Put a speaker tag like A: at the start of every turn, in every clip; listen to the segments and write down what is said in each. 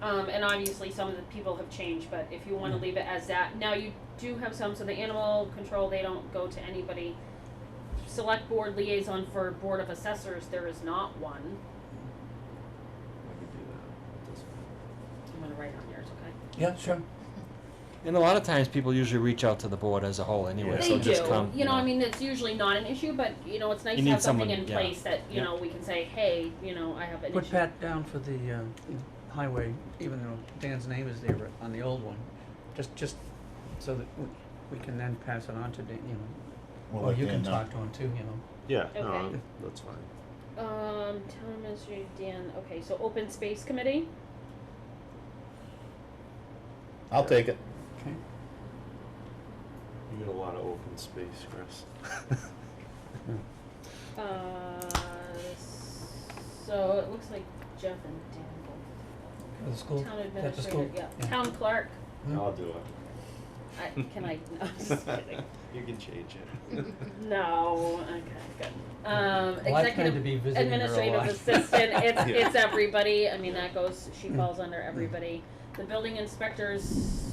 A: Um, and obviously some of the people have changed, but if you
B: Mm.
A: wanna leave it as that, now you do have some, so the animal control, they don't go to anybody. Select board liaison for board of assessors, there is not one,
C: I could do that. That's fine.
A: I'm gonna write on yours, okay?
D: Yeah, sure.
B: And a lot of times people usually reach out to the board as a whole anyway,
C: Yeah,
B: so just come.
A: They do, you know, I mean, it's usually not an issue, but, you know, it's nice
B: You
A: to
B: need
A: have something
B: someone,
A: in
B: yeah.
A: place that, you
B: Yeah.
A: know, we can say, hey, you know, I have an issue.
D: Put Pat down for the uh, highway, even though Dan's name is there on the old one, just, just so that we- we can then pass it on to Dan, you know.
E: Well,
D: Or
E: I
D: you can
E: can, uh,
D: talk to him too, you know.
C: Yeah, no,
A: Okay.
C: I'm- that's fine.
A: Um, town administrator Dan, okay, so open space committee,
E: I'll take it.
D: Okay.
C: You got a lot of open space, Chris.
A: uh, so it looks like Jeff and Dan both.
D: For the school,
A: Town
D: that's the school.
A: administrator, yeah, town clerk,
D: Hmm.
C: I'll do it.
A: I, can I, no, I'm just kidding,
C: You can change it.
A: no, okay, good. Um,
D: Well, I plan to
A: executive
D: be visiting her a
A: administrative
D: lot.
A: assistant, it's,
C: Yeah.
A: it's everybody, I mean, that goes, she
D: Mm.
A: falls under everybody. The building inspectors,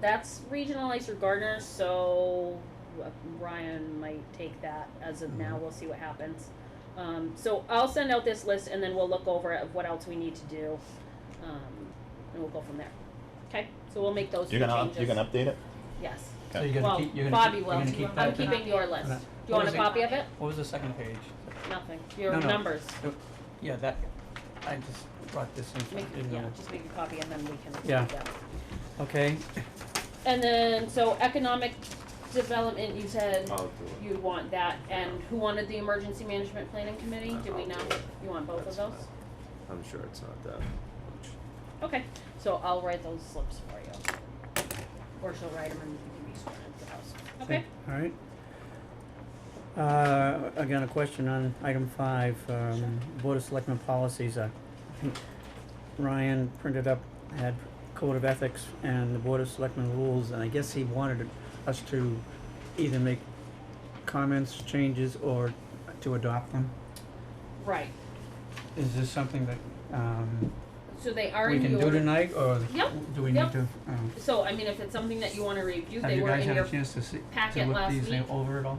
A: that's regional ice or gardeners, so uh, Ryan might take that as of now,
D: Mhm.
A: we'll see what happens. Um, so I'll send out this list and then we'll look over at what else we need to do, um, and we'll go from there. Okay, so we'll make those two
E: You're gonna, up-
A: changes.
E: you're gonna update it?
A: Yes,
D: So you're gonna
A: well,
D: keep, you're gonna
A: Bobby
D: keep,
A: will,
D: you're gonna keep that.
A: I'm keeping your list, do
D: What
A: you want a
D: was it?
A: copy of it?
D: What was the second page?
A: Nothing, your
D: No, no.
A: numbers,
D: The- Yeah, that, I just brought this in,
A: make,
D: didn't
A: yeah,
D: know.
A: just make a copy and then we can.
D: Yeah.
A: do that.
D: Okay,
A: And then, so economic development, you said
C: I'll do it.
A: you want that, and who wanted the emergency management planning committee, do we
C: I'll
A: know?
C: do it.
A: You want both of
C: That's
A: those?
C: fine. I'm sure it's not that much.
A: Okay, so I'll write those slips for you. Or she'll write them and you can be sworn into the house, okay?
D: All right. Uh, again, a question on item five, um, Board of Selectmen policies, uh, I think Ryan printed up, had Code of Ethics and the Board of Selectmen rules, and I guess he wanted us to either make comments, changes, or to adopt them.
A: Right,
D: Is this something that, um,
A: so they are
D: we
A: in
D: can do
A: your,
D: tonight, or
A: Yep,
D: do we
A: yep.
D: need to, um,
A: so I mean, if it's something that you wanna review,
D: have
A: they
D: you
A: were
D: guys
A: in
D: had
A: your,
D: a chance to see,
A: packet
D: to look
A: last
D: these
A: week.
D: over at all?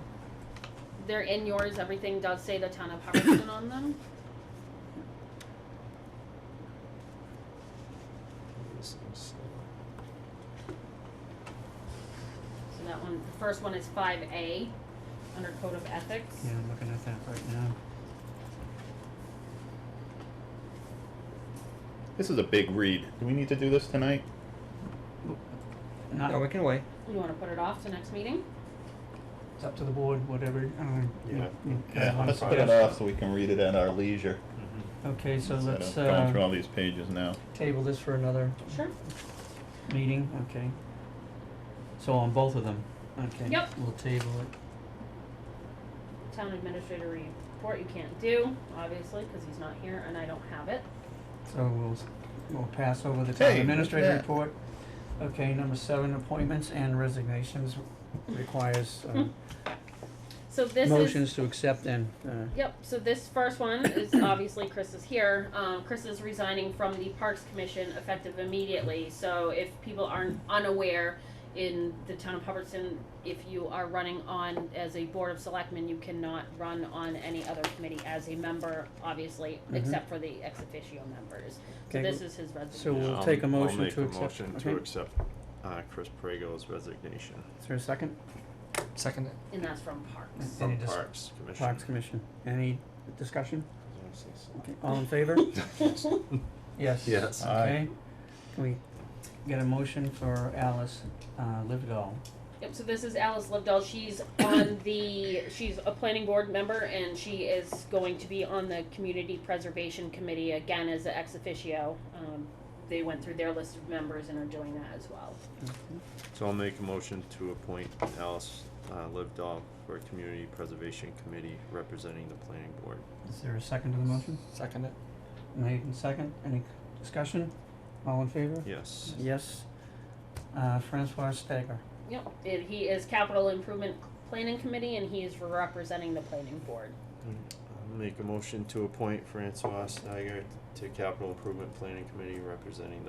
A: they're in yours, everything does say the town of Hubbardston on them.
C: This thing's slow.
A: So that one, the first one is five A, under code of ethics.
D: Yeah, I'm looking at that right now.
E: This is a big read. Do we need to do this tonight?
D: Not-
B: No, we can wait.
A: You wanna put it off to next meeting?
D: It's up to the board, whatever, um. you-
C: Yeah.
D: you guys
E: Yeah,
D: wanna
E: let's put it
D: suggest.
E: off so we can read it at our leisure.
C: Mm-hmm.
D: Okay, so
E: Instead
D: let's,
E: of Going through
D: uh,
E: all these pages now.
D: table this for another
A: Sure.
D: meeting, okay? So on both of them, okay?
A: Yep.
D: We'll table it.
A: Town administrator report you can't do, obviously, cause he's not here and I don't have it.
D: So we'll, s- we'll pass over the town
E: Hey,
D: administrator
E: yeah.
D: report. Okay, number seven, appointments and resignations requires, uh,
A: So Hmm. this is,
D: motions to accept and, uh,
A: yep, so this first one is obviously Chris is here. Um, Chris is resigning from the Parks Commission effective immediately, so if people aren't unaware, in the town of Hubbardston, if you are running on as a board of selectmen, you cannot run on any other committee as a member, obviously,
D: Mhm.
A: except for the ex officio members. So
D: Okay,
A: this is his resignation.
D: so We'll take a
C: I'll-
D: motion to
C: I'll make a
D: accept-
C: motion to
D: okay.
C: accept, uh, Chris Prego's resignation
D: is there a second?
B: Second.
A: And that's from Parks.
D: Any
C: from
D: dis-
C: Parks Commission.
D: Parks Commission, any discussion?
C: Yes, yes.
D: Okay, all in favor? Yes.
C: Yes.
E: Aye.
D: Okay, can we get a motion for Alice, uh, Livedall?
A: Yep, so this is Alice Lovedell. She's on the, she's a planning board member and she is going to be on the Community Preservation Committee again as an ex officio. Um, they went through their list of members and are doing that as well.
C: So I'll make a motion to appoint Alice uh, Livedall for Community Preservation Committee representing the planning board.
D: Is there a second to the motion?
B: Second it.
D: Made and second, any discussion? All in favor?
C: Yes.
D: Yes. Uh, Francois Stagger,
A: Yep, and he is Capital Improvement Planning Committee and he is representing the planning board.
C: I'll make a motion to appoint Francois Steiger to Capital Improvement Planning Committee representing the